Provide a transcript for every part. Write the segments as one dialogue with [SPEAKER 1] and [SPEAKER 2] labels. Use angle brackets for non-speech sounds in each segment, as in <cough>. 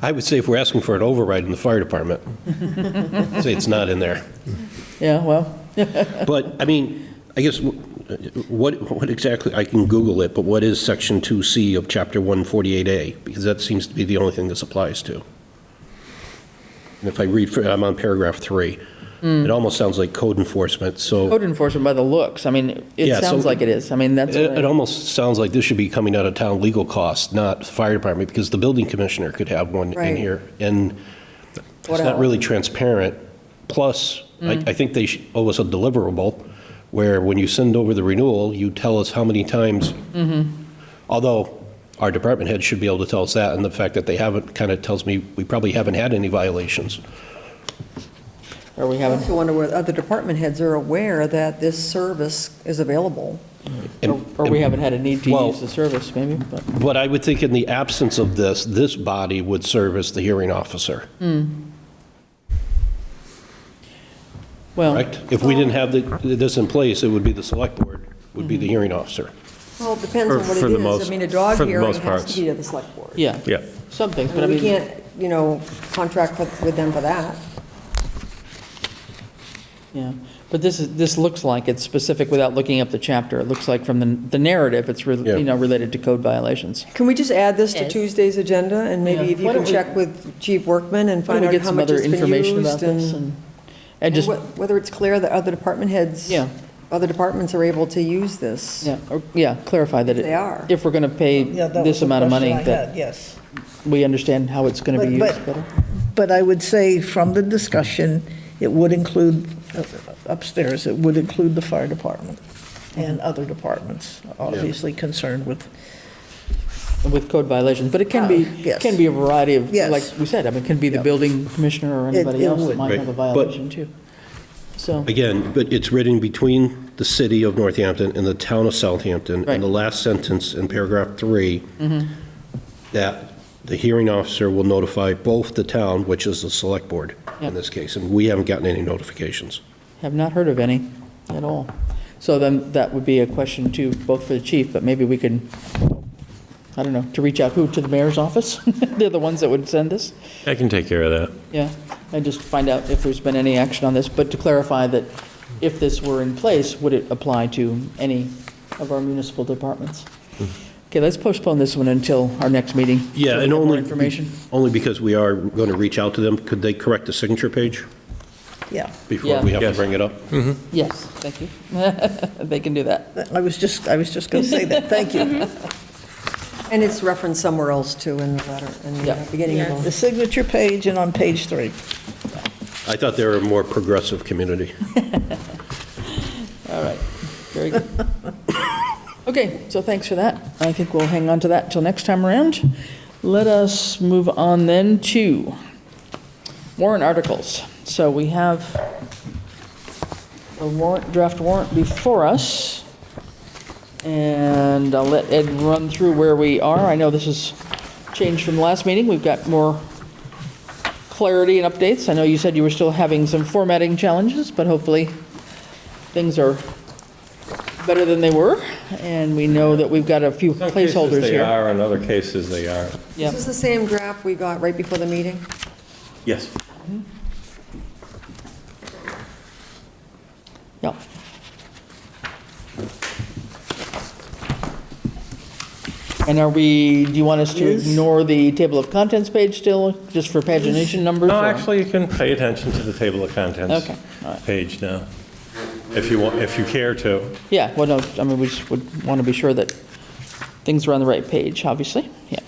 [SPEAKER 1] I would say if we're asking for an override in the fire department, say it's not in there.
[SPEAKER 2] Yeah, well,
[SPEAKER 1] But, I mean, I guess, what, what exactly, I can Google it, but what is Section 2C of Chapter 148A? Because that seems to be the only thing this applies to. And if I read, fr- I'm on paragraph three. It almost sounds like code enforcement, so
[SPEAKER 2] code enforcement by the looks, I mean,
[SPEAKER 1] Yeah,
[SPEAKER 2] it
[SPEAKER 1] so-
[SPEAKER 2] sounds like it is, I mean, that's,
[SPEAKER 1] it it
[SPEAKER 2] what I-
[SPEAKER 1] almost sounds like this should be coming out of town legal costs, not fire department, because the building commissioner could have one in
[SPEAKER 3] Right.
[SPEAKER 1] here. And it's not really transparent. Plus, I,
[SPEAKER 2] Mm.
[SPEAKER 1] I think they should owe us a deliverable, where when you send over the renewal, you tell us how many times.
[SPEAKER 2] Mm-hmm.
[SPEAKER 1] Although, our department head should be able to tell us that, and the fact that they haven't kind of tells me we probably haven't had any violations.
[SPEAKER 2] or we
[SPEAKER 3] I
[SPEAKER 2] haven't,
[SPEAKER 3] also wonder whether other department heads are aware that this service is available.
[SPEAKER 2] or
[SPEAKER 1] And-
[SPEAKER 2] or we haven't had a need to
[SPEAKER 1] Well-
[SPEAKER 2] use the service, maybe, but,
[SPEAKER 1] But I would think in the absence of this, this body would serve as the hearing officer,
[SPEAKER 2] well,
[SPEAKER 1] correct? If we didn't have the- this in place, it would be the select board, would be the hearing officer.
[SPEAKER 3] Well, it depends on
[SPEAKER 4] For-
[SPEAKER 3] what
[SPEAKER 4] for
[SPEAKER 3] it
[SPEAKER 4] the
[SPEAKER 3] is. I
[SPEAKER 4] most-
[SPEAKER 3] mean, a dog
[SPEAKER 4] for the
[SPEAKER 3] hearing
[SPEAKER 4] most
[SPEAKER 3] has
[SPEAKER 4] parts.
[SPEAKER 3] to be to the select board.
[SPEAKER 2] yeah,
[SPEAKER 4] Yeah.
[SPEAKER 2] some things,
[SPEAKER 3] I
[SPEAKER 2] but I
[SPEAKER 3] mean, We
[SPEAKER 2] mean,
[SPEAKER 3] can't, you know, contract with with them for that.
[SPEAKER 2] yeah, but this is, this looks like it's specific without looking up the chapter, it looks like from the the narrative, it's, re-
[SPEAKER 1] Yeah.
[SPEAKER 2] you know, related to code violations.
[SPEAKER 3] Can we just add this to
[SPEAKER 5] Yes.
[SPEAKER 3] Tuesday's agenda, and maybe
[SPEAKER 2] Yeah.
[SPEAKER 3] if you
[SPEAKER 2] Why
[SPEAKER 3] can
[SPEAKER 2] don't we-
[SPEAKER 3] check with Chief Workman and
[SPEAKER 2] Why
[SPEAKER 3] find
[SPEAKER 2] don't
[SPEAKER 3] out
[SPEAKER 2] we get
[SPEAKER 3] how
[SPEAKER 2] some
[SPEAKER 3] much
[SPEAKER 2] other
[SPEAKER 3] has been
[SPEAKER 2] information about
[SPEAKER 3] used,
[SPEAKER 2] this,
[SPEAKER 3] and
[SPEAKER 2] and, and just,
[SPEAKER 3] and wh- whether it's clear that other department heads,
[SPEAKER 2] Yeah.
[SPEAKER 3] other departments are able to use this.
[SPEAKER 2] yeah, or- yeah, clarify that it-
[SPEAKER 3] They are.
[SPEAKER 2] if we're going to pay
[SPEAKER 6] Yeah, that was
[SPEAKER 2] this
[SPEAKER 6] the
[SPEAKER 2] amount of money,
[SPEAKER 6] question I
[SPEAKER 2] that
[SPEAKER 6] had, Yes,
[SPEAKER 2] we understand how it's going to be
[SPEAKER 6] But-
[SPEAKER 2] used
[SPEAKER 6] but-
[SPEAKER 2] better.
[SPEAKER 6] but I would say from the discussion, it would include uh, upstairs, it would include the fire department and other departments, obviously concerned with,
[SPEAKER 2] with code violations, but it can be,
[SPEAKER 6] Oh, Yes.
[SPEAKER 2] can be a variety of,
[SPEAKER 6] Yes.
[SPEAKER 2] like we said, I mean, it can be the building commissioner or
[SPEAKER 6] It-
[SPEAKER 2] anybody
[SPEAKER 6] it
[SPEAKER 2] else that
[SPEAKER 6] would.
[SPEAKER 2] might have a
[SPEAKER 1] Right, but-
[SPEAKER 2] violation too. So,
[SPEAKER 1] Again, but it's written between the city of Northampton and the town of Southampton.
[SPEAKER 2] Right.
[SPEAKER 1] And the last sentence in paragraph three, that the hearing officer will notify both the town, which is the select board in
[SPEAKER 2] Yep.
[SPEAKER 1] this case, and we haven't gotten any notifications.
[SPEAKER 2] have not heard of any at all. So then that would be a question too, both for the chief, but maybe we can, I don't know, to reach out who, to the mayor's office? <laughs> They're the ones that would send this?
[SPEAKER 4] I can take care of that.
[SPEAKER 2] Yeah, and just find out if there's been any action on this, but to clarify that if this were in place, would it apply to any of our municipal departments? Okay, let's postpone this one until our next meeting. so
[SPEAKER 1] Yeah, and
[SPEAKER 2] we have more
[SPEAKER 1] only.
[SPEAKER 2] information.
[SPEAKER 1] Only because we are going to reach out to them. Could they correct the signature page
[SPEAKER 6] yeah.
[SPEAKER 1] before we have to
[SPEAKER 4] Yes.
[SPEAKER 1] bring it up?
[SPEAKER 2] Yes, thank you. <laughs> They can do that.
[SPEAKER 6] I was just, I was just going to say that, thank you.
[SPEAKER 3] And it's referenced somewhere else, too, in the letter, in
[SPEAKER 2] Yeah.
[SPEAKER 3] the beginning of the
[SPEAKER 6] The signature page and on page three.
[SPEAKER 1] I thought they were a more progressive community.
[SPEAKER 2] All right, very good. <laughs> Okay, so thanks for that. I think we'll hang on to that till next time around. Let us move on then to warrant articles. So we have a warrant, draft warrant before us, and I'll let Ed run through where we are. I know this has changed from the last meeting. We've got more clarity and updates. I know you said you were still having some formatting challenges, but hopefully things are better than they were, and we know that we've got a few placeholders
[SPEAKER 4] They
[SPEAKER 2] here.
[SPEAKER 4] are, in other cases, they are.
[SPEAKER 2] Yeah.
[SPEAKER 3] This is the same draft we got right before the meeting?
[SPEAKER 4] Yes.
[SPEAKER 2] Yeah. And are we, do you want us to ignore the table of contents page still, just for pagination numbers?
[SPEAKER 4] No,
[SPEAKER 2] or-
[SPEAKER 4] actually, you can pay attention to the table of contents.
[SPEAKER 2] Okay, all right.
[SPEAKER 4] Page now, if you want, if you care to.
[SPEAKER 2] Yeah, well, no, I mean, we just would want to be sure that things are on the right page, obviously, yeah.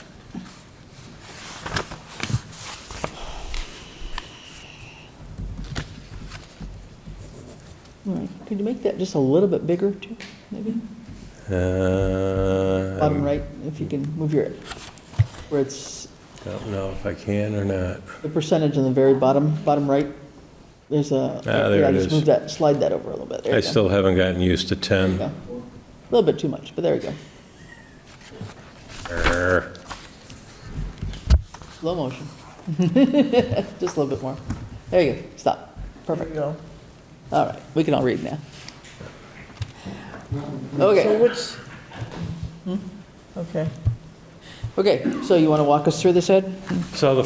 [SPEAKER 2] All right, Could you make that just a little bit bigger, too, maybe?
[SPEAKER 4] Uh,
[SPEAKER 2] Bottom right, if you can move your, where it's
[SPEAKER 4] I don't know if I can or not.
[SPEAKER 2] the percentage on the very bottom, bottom right, there's a.
[SPEAKER 4] Ah, there
[SPEAKER 2] yeah,
[SPEAKER 4] it
[SPEAKER 2] Just
[SPEAKER 4] is.
[SPEAKER 2] move that, slide that over a little bit. There
[SPEAKER 4] I
[SPEAKER 2] you go.
[SPEAKER 4] still haven't gotten used to 10.
[SPEAKER 2] Yeah. A little bit too much, but there you go.
[SPEAKER 4] Err.
[SPEAKER 2] Slow motion. <laughs> Just a little bit more. There you go, stop. Perfect.
[SPEAKER 6] you go.
[SPEAKER 2] All right, we can all read now.
[SPEAKER 6] So
[SPEAKER 2] Okay,
[SPEAKER 6] what's, okay. Hmm?
[SPEAKER 2] okay, so you want to walk us through this, Ed?
[SPEAKER 4] So the